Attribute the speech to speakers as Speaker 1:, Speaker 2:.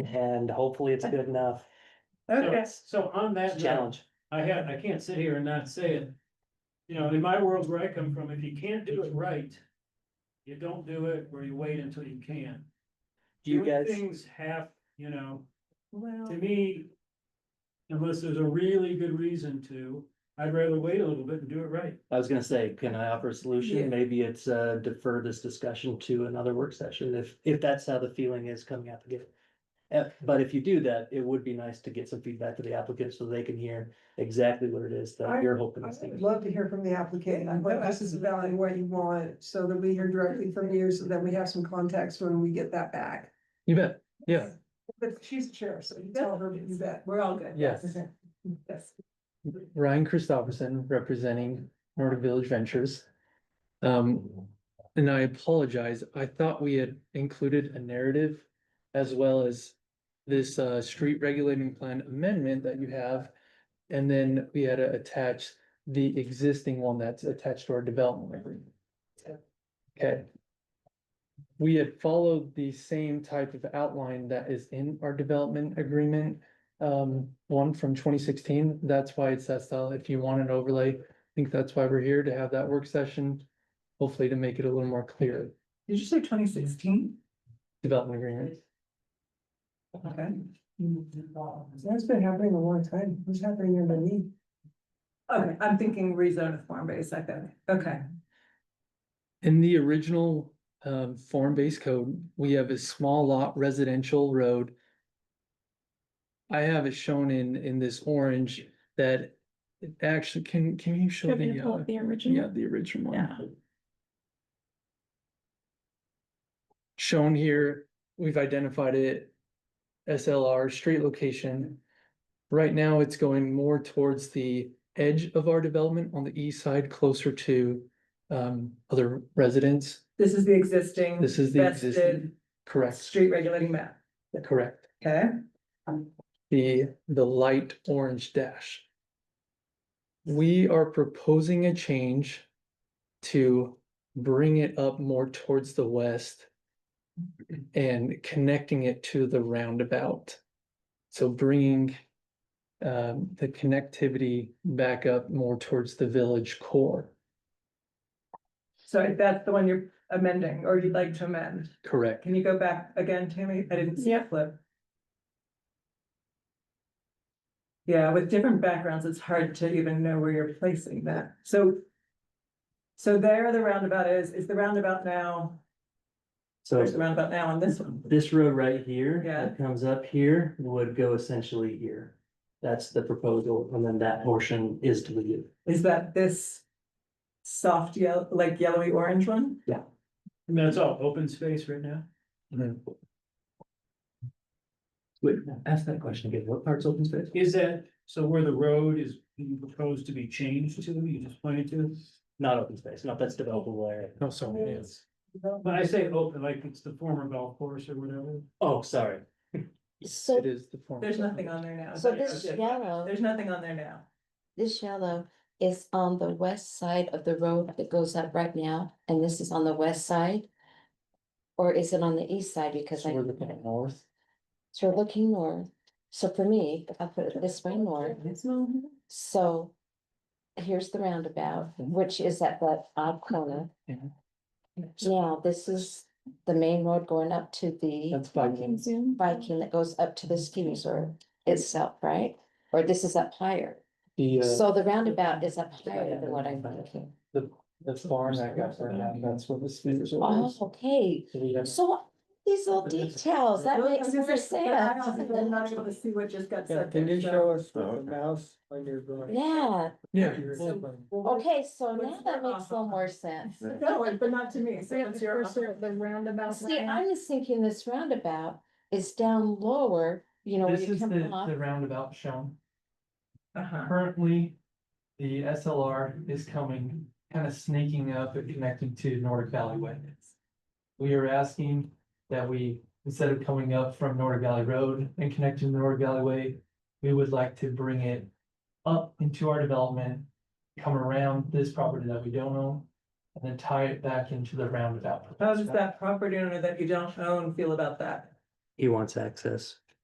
Speaker 1: and hopefully it's good enough.
Speaker 2: Okay, uh,
Speaker 3: So on
Speaker 1: It's
Speaker 3: that
Speaker 1: a
Speaker 3: note,
Speaker 1: Challenge.
Speaker 3: I had, I can't sit here and not say it. You know, in my world where I come from, if you can't do it right, you don't do it or you wait until you can.
Speaker 1: Do you
Speaker 3: Doing
Speaker 1: guys,
Speaker 3: Things have, you know, to
Speaker 2: well,
Speaker 3: me, unless there's a really good reason to, I'd rather wait a little bit and do it right.
Speaker 1: I was gonna say, can I offer a
Speaker 2: Yeah.
Speaker 1: solution? Maybe it's uh defer this discussion to another work session if if that's how the feeling is coming out the gate. Uh, but if you do that, it would be nice to get some feedback to the applicant so they can hear exactly what it is that
Speaker 2: I-
Speaker 1: you're hoping. this
Speaker 2: I'd
Speaker 1: thing-
Speaker 2: love to hear from the applicant, on what this is about and what you want, so that we hear directly from you, so that we have some context when we get that back.
Speaker 4: You bet, yeah.
Speaker 2: But she's the chair, so you tell her, you bet, we're all good.
Speaker 4: Yes.
Speaker 2: Okay. Yes.
Speaker 4: Ryan Christopherson representing Nordic Village Ventures. Um, and I apologize, I thought we had included a narrative as well as this uh street regulating plan amendment that you have. And then we had to attach the existing one that's attached to our development agreement. Okay. We had followed the same type of outline that is in our development agreement um, one from twenty sixteen. That's why it's that style. If you want an overlay, I think that's why we're here to have that work session. Hopefully to make it a little more clear,
Speaker 2: Did you say twenty sixteen?
Speaker 4: development agreement.
Speaker 2: Okay. That's been happening a long time, what's happening in the knee? Okay, Oh, I'm thinking rezone to form-based, I think, okay.
Speaker 4: In the original um form-based code, we have a small lot residential road. I have it shown in in this orange that it actually can, can you show the? uh,
Speaker 5: The
Speaker 4: Yeah,
Speaker 5: original.
Speaker 4: the original
Speaker 5: Yeah.
Speaker 4: one. Shown here, we've identified it, SLR, street location. Right now, it's going more towards the edge of our development on the east side, closer to um other residents.
Speaker 2: This is the existing.
Speaker 4: This is the existing, correct,
Speaker 2: Street regulating map,
Speaker 4: correct.
Speaker 2: okay?
Speaker 4: The the light orange dash. We are proposing a change to bring it up more towards the west and connecting it to the roundabout. So bringing um, the connectivity back up more towards the village core.
Speaker 2: So that's the one you're amending, or you'd like to amend.
Speaker 4: Correct.
Speaker 2: Can you go back again, Tammy? I didn't see the
Speaker 5: Yeah.
Speaker 2: flip. Yeah, with different backgrounds, it's hard to even know where you're placing that. So so there the roundabout is, is the roundabout now,
Speaker 1: So
Speaker 2: there's the roundabout now on this one.
Speaker 1: this road right here
Speaker 2: Yeah.
Speaker 1: that comes up here would go essentially here. That's the proposal, and then that portion is deleted.
Speaker 2: Is that this soft yellow, like yellowy orange one?
Speaker 3: And that's all open space right now.
Speaker 1: Wait, ask that question again. What part's open space?
Speaker 3: Is that, so where the road is being proposed to be changed to, you just pointed to?
Speaker 1: Not open space, no, that's developable area.
Speaker 4: No,
Speaker 5: Mm.
Speaker 4: sorry.
Speaker 3: When I say open, like it's the former golf course or whatever.
Speaker 1: Oh, sorry.
Speaker 5: So,
Speaker 4: It is the form.
Speaker 2: There's nothing on there now.
Speaker 5: so this
Speaker 3: Okay.
Speaker 5: yellow,
Speaker 2: There's nothing on there now.
Speaker 5: this yellow is on the west side of the road that goes up right now, and this is on the west side? Or is it on the east side? Because
Speaker 4: So
Speaker 5: I,
Speaker 4: we're looking at north.
Speaker 5: so we're looking north. So for me, if I put it this way north, so here's the roundabout,
Speaker 4: Mm-hmm.
Speaker 5: which is at that odd corner.
Speaker 4: Mhm.
Speaker 5: Now, this is the main road going up to the.
Speaker 4: That's Viking.
Speaker 5: Viking that goes up to the
Speaker 2: Mm-hmm.
Speaker 5: ski resort itself, right? Or this is up higher.
Speaker 4: The uh,
Speaker 5: So the roundabout is up higher than what I'm thinking.
Speaker 4: the farm that got burned down, that's where the ski resort
Speaker 5: Oh,
Speaker 4: was.
Speaker 5: okay.
Speaker 4: So we have-
Speaker 5: So these little details, that
Speaker 2: Well, I
Speaker 5: makes
Speaker 2: was
Speaker 5: more
Speaker 2: gonna say, I
Speaker 5: sense.
Speaker 2: also am not able to see what just got said. there, so-
Speaker 4: us the mouse on your drawing?
Speaker 5: Yeah,
Speaker 4: Yeah.
Speaker 5: okay, so
Speaker 2: What's
Speaker 5: now that
Speaker 2: the-
Speaker 5: makes a little more sense.
Speaker 2: No, but not to me, so it's your.
Speaker 5: See, I was thinking this roundabout is down lower, you know, when
Speaker 4: This
Speaker 5: Oh, you
Speaker 4: is the,
Speaker 5: come off.
Speaker 4: the roundabout shown.
Speaker 2: Uh-huh.
Speaker 4: Currently, the SLR is coming, kind of sneaking up and connecting to Nordic Valley Way. We are asking that we, instead of coming up from Nordic Valley Road and connecting to Nordic Valley Way, we would like to bring it up into our development, come around this property that we don't own, and then tie it back into the roundabout.
Speaker 2: How does that property owner that you don't own feel about that?
Speaker 1: He wants access.